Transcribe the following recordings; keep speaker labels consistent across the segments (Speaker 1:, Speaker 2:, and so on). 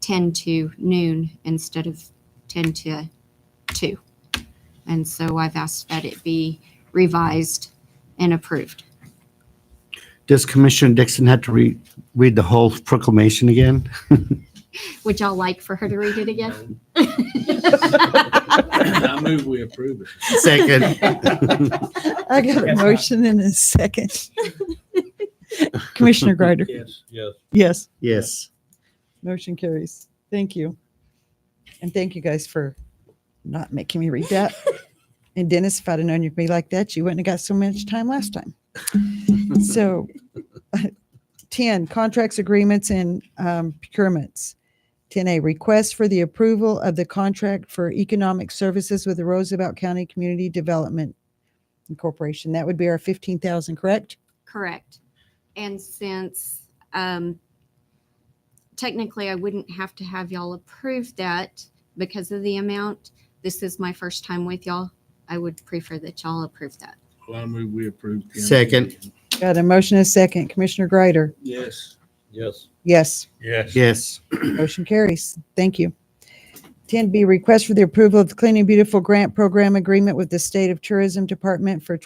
Speaker 1: 10 to noon instead of 10 to 2. And so I've asked that it be revised and approved.
Speaker 2: Does Commissioner Dixon have to read, read the whole proclamation again?
Speaker 1: Would y'all like for her to read it again?
Speaker 3: I move we approve it.
Speaker 2: Second,
Speaker 4: I got a
Speaker 3: Yes, ma'am.
Speaker 4: motion and a second. Commissioner Greider?
Speaker 3: Yes, yes.
Speaker 4: Yes,
Speaker 2: yes.
Speaker 4: motion carries. Thank you. And thank you guys for not making me read that. And Dennis, if I'd have known you'd be like that, you wouldn't have got so much time last time. So, 10, contracts, agreements, and um, procurements. 10A, request for the approval of the contract for economic services with the Roosevelt County Community Development Corporation. That would be our 15,000, correct?
Speaker 1: Correct. And since um, technically I wouldn't have to have y'all approve that because of the amount, this is my first time with y'all. I would prefer that y'all approve that.
Speaker 3: Well, I move we approve. the
Speaker 2: Second.
Speaker 4: Got a motion and a second. Commissioner Greider?
Speaker 3: Yes. Yes.
Speaker 4: Yes.
Speaker 3: Yes.
Speaker 2: Yes,
Speaker 4: Motion carries. Thank you. 10B, request for the approval of the Clean and Beautiful Grant Program Agreement with the State of Tourism Department for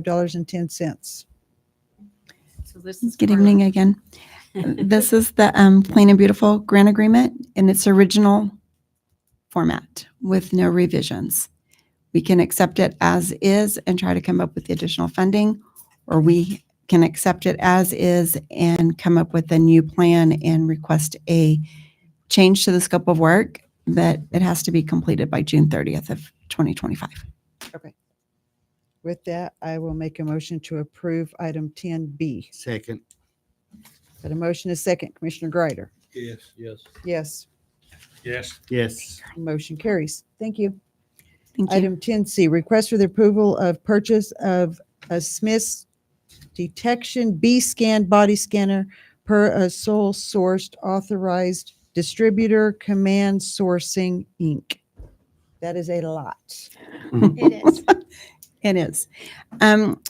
Speaker 4: $12,025.10.
Speaker 1: So this is.
Speaker 5: Good
Speaker 1: for-
Speaker 5: evening again. This is the um, Plain and Beautiful Grant Agreement in its original format with no revisions. We can accept it as is and try to come up with the additional funding, or we can accept it as is and come up with a new plan and request a change to the scope of work, but it has to be completed by June 30th of 2025.
Speaker 4: With that, I will make a motion to approve item 10B.
Speaker 2: second,
Speaker 4: Got a motion and a second. Commissioner Greider?
Speaker 3: Yes. Yes.
Speaker 4: Yes.
Speaker 3: Yes.
Speaker 2: yes.
Speaker 4: Motion carries. Thank you.
Speaker 5: Thank you.
Speaker 4: Item 10C, request for the approval of purchase of a Smith's Detection B-Scan Body Scanner per a sole sourced authorized distributor, Command Sourcing, Inc. That is a lot.
Speaker 6: It is.
Speaker 5: It is. Um,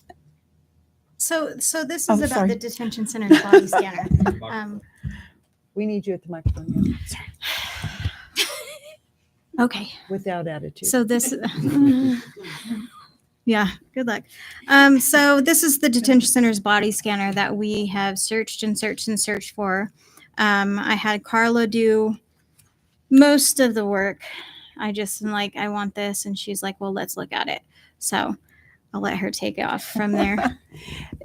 Speaker 6: So, so this
Speaker 5: Oh,
Speaker 6: is about
Speaker 5: sorry.
Speaker 6: the detention center's body scanner. Um,
Speaker 4: We need you at the microphone yeah,
Speaker 6: Okay,
Speaker 4: without attitude.
Speaker 6: so this, yeah, good luck. Um, so this is the detention center's body scanner that we have searched and searched and searched for. Um, I had Carla do most of the work. I just am like, I want this. And she's like, well, let's look at it. So I'll let her take off from there.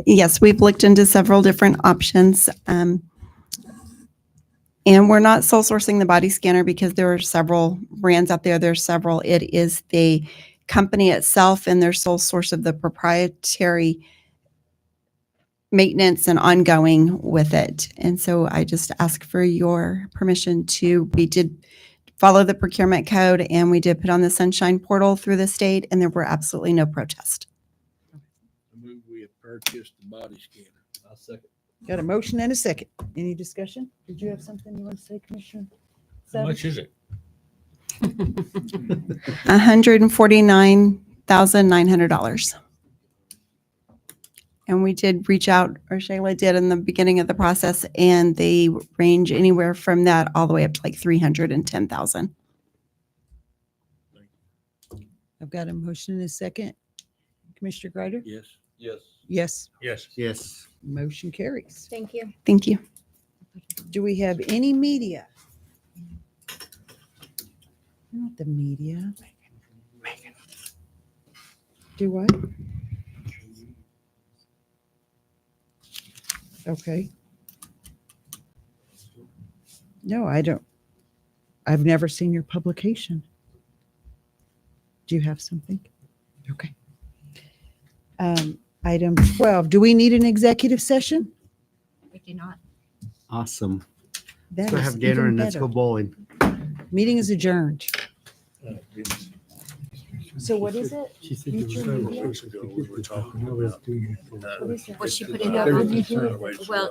Speaker 5: Yes, we've looked into several different options. um, And we're not sole sourcing the body scanner because there are several brands out there. There's several. It is the company itself and their sole source of the proprietary maintenance and ongoing with it. And so I just ask for your permission to, we did follow the procurement code and we did put on the sunshine portal through the state and there were absolutely no protest.
Speaker 3: I move we have purchased the body scanner. I second.
Speaker 4: Got a motion and a second. Any discussion? Did you have something you want to say, Commissioner? Savage?
Speaker 3: is it?
Speaker 5: $149,900. And we did reach out, or Shayla did in the beginning of the process, and they range anywhere from that all the way up to like 310,000.
Speaker 4: I've got a motion and a second. Commissioner Greider?
Speaker 3: Yes. Yes.
Speaker 4: Yes,
Speaker 3: Yes.
Speaker 2: Yes,
Speaker 4: motion carries.
Speaker 6: Thank you.
Speaker 5: Thank you.
Speaker 4: Do we have any media? Not the media. Do what? Okay. No, I don't. I've never seen your publication. Do you have something? Okay. Um, Item 12, do we need an executive session?
Speaker 1: We do not.
Speaker 2: awesome.
Speaker 4: That
Speaker 2: Let's go
Speaker 4: is
Speaker 2: have dinner
Speaker 4: even
Speaker 2: and let's
Speaker 4: better.
Speaker 2: go bowling.
Speaker 4: Meeting is adjourned.
Speaker 3: So what is
Speaker 4: it?
Speaker 3: She said there was several weeks ago we were talking about.
Speaker 1: Well, she put it up on, well,